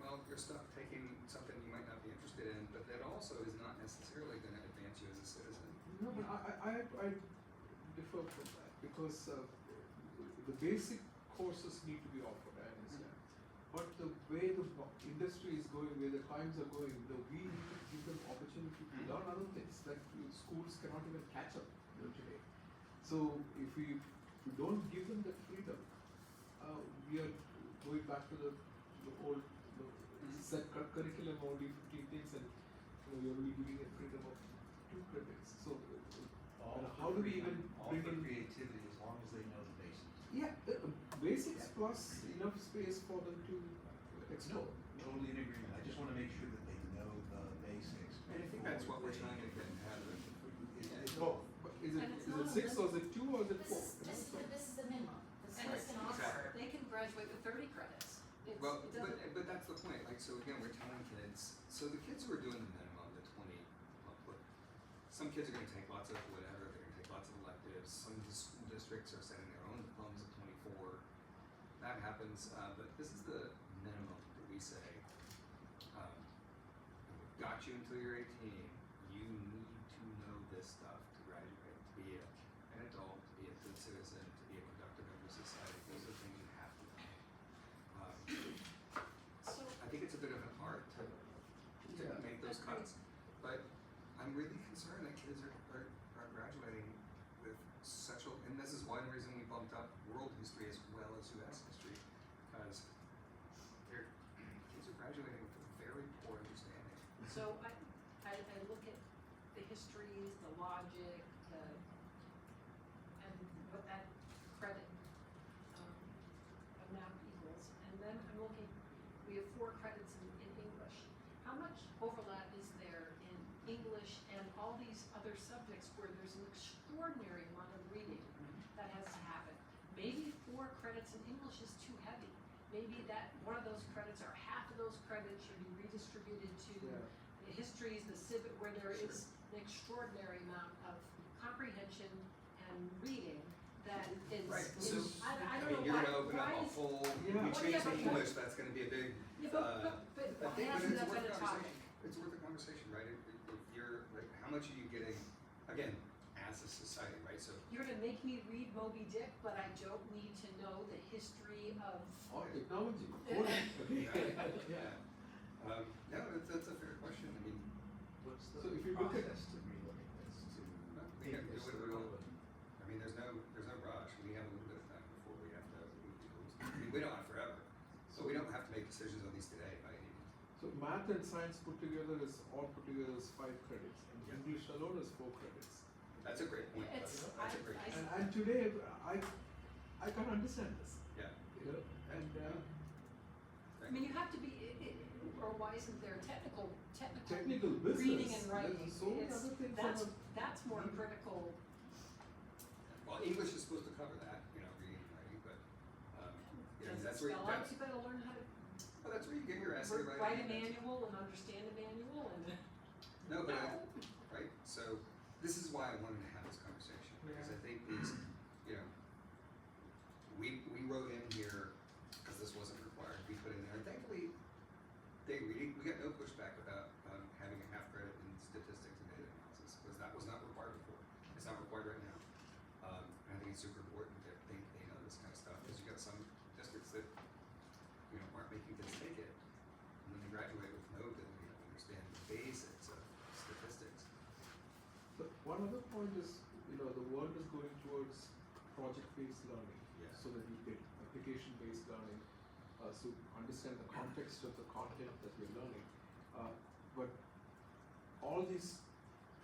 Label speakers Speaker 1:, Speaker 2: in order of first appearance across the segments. Speaker 1: well, you're stuck taking something you might not be interested in, but that also is not necessarily going to advance you as a citizen.
Speaker 2: No, but I, I, I I differ from that because uh, the basic courses need to be offered, I understand. But the way the bo- industry is going, where the times are going, the, we need to give them opportunity to learn other things, like uh, schools cannot even catch up you know, today. So if we, if we don't give them that freedom, uh, we are going back to the, the old the set cur- curriculum only 15 things and you know, you're only giving a freedom of two credits. So uh,
Speaker 3: All
Speaker 2: uh,
Speaker 3: for
Speaker 2: how do we even
Speaker 3: freedom, all
Speaker 2: bring
Speaker 3: for
Speaker 2: in
Speaker 3: creativity as long as they know the basics?
Speaker 2: yeah, uh, uh, basics plus enough space for them to explore.
Speaker 3: Totally in agreement. I just want to make sure that they know the basics.
Speaker 1: And I think that's what we're
Speaker 3: before
Speaker 1: trying to get out of it.
Speaker 3: they-
Speaker 1: Yeah, it's-
Speaker 3: It's both.
Speaker 2: But is it,
Speaker 4: And it's
Speaker 2: is
Speaker 4: not
Speaker 2: it six or is it two or is it
Speaker 4: This
Speaker 2: four?
Speaker 4: is,
Speaker 2: You know,
Speaker 4: this is,
Speaker 2: so-
Speaker 4: the- this is the minimum, the
Speaker 1: Right,
Speaker 4: students can offer,
Speaker 1: exactly.
Speaker 4: they can graduate with thirty credits. It's,
Speaker 1: Well,
Speaker 4: it
Speaker 1: but,
Speaker 4: doesn't,
Speaker 1: but that's the point. Like, so again, we're telling kids. So the kids who are doing the minimum, the twenty, uh, look, some kids are going to take lots of whatever. They're going to take lots of electives. Some of the school districts are setting their own diplomas at twenty-four. That happens, uh, but this is the minimum that we say. Um, we've got you until you're eighteen. You need to know this stuff to graduate, to be a, an adult, to be a good citizen, to be a productive member of society. Those are things you have to know. Um,
Speaker 4: so,
Speaker 1: I think it's a bit of an art to, to
Speaker 2: Yeah.
Speaker 1: make those
Speaker 4: Agreed.
Speaker 1: cuts, but I'm really concerned that kids are, are, are graduating with such a, and this is one reason we bumped up world history as well as U.S. history, because they're, kids are graduating with a very poor understanding.
Speaker 4: so I, I, I look at the histories, the logic, the, and what that credit, um, amount equals. And then I'm looking, we have four credits in, in English. How much overlap is there in English and all these other subjects where there's an extraordinary amount of reading that has to happen? Maybe four credits in English is too heavy. Maybe that, one of those credits or half of those credits should be redistributed to
Speaker 2: Yeah.
Speaker 4: the histories, the civic, where there is an extraordinary amount of comprehension and reading that is,
Speaker 1: Right,
Speaker 4: is-
Speaker 1: so,
Speaker 4: I,
Speaker 1: I
Speaker 4: I
Speaker 1: mean,
Speaker 4: don't know
Speaker 1: you're
Speaker 4: why,
Speaker 1: gonna open up
Speaker 4: why
Speaker 1: a
Speaker 4: is,
Speaker 1: whole, if
Speaker 2: Yeah.
Speaker 1: you
Speaker 4: Well,
Speaker 1: change
Speaker 4: yeah,
Speaker 1: the
Speaker 4: but-
Speaker 1: English, that's gonna be a big,
Speaker 4: yeah,
Speaker 1: uh, I
Speaker 4: but, but, but why
Speaker 1: think, but
Speaker 4: hasn't
Speaker 1: it's worth a
Speaker 4: that been a
Speaker 1: conversation.
Speaker 4: topic?
Speaker 1: It's worth a conversation, right? If, if if you're, like, how much are you getting, again, as a society, right? So
Speaker 4: You're gonna make me read Moby Dick, but I don't need to know the history of,
Speaker 2: Or technology.
Speaker 4: Yeah.
Speaker 2: coding.
Speaker 1: Yeah. Um, no, that's, that's a fair question. I mean,
Speaker 3: What's
Speaker 2: So if you
Speaker 3: the
Speaker 2: look at-
Speaker 3: process to relooking this to?
Speaker 1: We have to do
Speaker 3: is
Speaker 1: it
Speaker 3: the
Speaker 1: real-
Speaker 3: relevant-
Speaker 1: I mean, there's no, there's no rush. We have a little bit of time before we have to move to rules. I mean, we don't have forever, so we don't have to make decisions on these today by any means.
Speaker 2: So math and science put together is all put together is five credits, and
Speaker 1: Yeah.
Speaker 2: English alone is four credits.
Speaker 1: That's a great point.
Speaker 4: it's, I,
Speaker 1: That's a great.
Speaker 4: I,
Speaker 2: And, and today, I, I can't understand this.
Speaker 1: Yeah.
Speaker 2: You know, and uh,
Speaker 4: I mean, you have to be, i- i- or why isn't there technical, technical
Speaker 2: technical business.
Speaker 4: reading and writing?
Speaker 2: There's so many
Speaker 4: It's-
Speaker 2: other things.
Speaker 4: That's,
Speaker 2: on
Speaker 4: that's more critical,
Speaker 1: Well, English is supposed to cover that, you know, reading and writing, but um, you know,
Speaker 4: does it
Speaker 1: that's where
Speaker 4: spell
Speaker 1: you,
Speaker 4: out,
Speaker 1: that's,
Speaker 4: you better learn how to
Speaker 1: well, that's where you get your essay
Speaker 4: Write
Speaker 1: writing.
Speaker 4: write a
Speaker 1: and that's-
Speaker 4: manual and understand a manual and.
Speaker 1: No, but I, right? So this is why I wanted to have this conversation because I think these, you know, we we wrote in here because this wasn't required. We put in there. Thankfully, they we, we got no pushback about um, having a half credit in statistics and data analysis because that was not required before. It's not required right now. Um, and I think it's super important that they, they know this kind of stuff because you got some districts that you know aren't making kids take it, and then they graduate with no ability to understand the basics of statistics.
Speaker 2: So one other point is, you know, the world is going towards project-based learning,
Speaker 1: Yeah.
Speaker 2: so that you get application-based learning, uh, so understand the context of the content that you're learning. Uh, but all these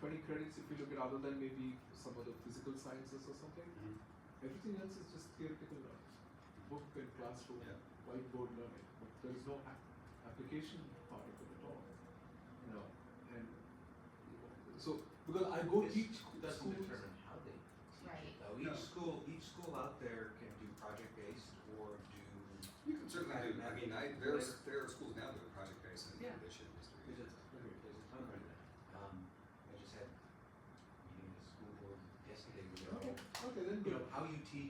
Speaker 2: 20 credits, if you look at other than maybe some of the physical sciences or something,
Speaker 1: Mhm.
Speaker 2: everything else is just theoretical learning, book and classroom,
Speaker 1: Yeah.
Speaker 2: whiteboard learning, but there is no ap- application part of it at all. You know, and so because I go
Speaker 3: This
Speaker 2: teach
Speaker 3: Doesn't
Speaker 2: schools.
Speaker 3: determine how they teach it,
Speaker 4: Right.
Speaker 3: though.
Speaker 1: No.
Speaker 3: Each school, each school out there can do project based or do
Speaker 1: You can certainly do. I mean, I, there are, there are schools
Speaker 3: Um,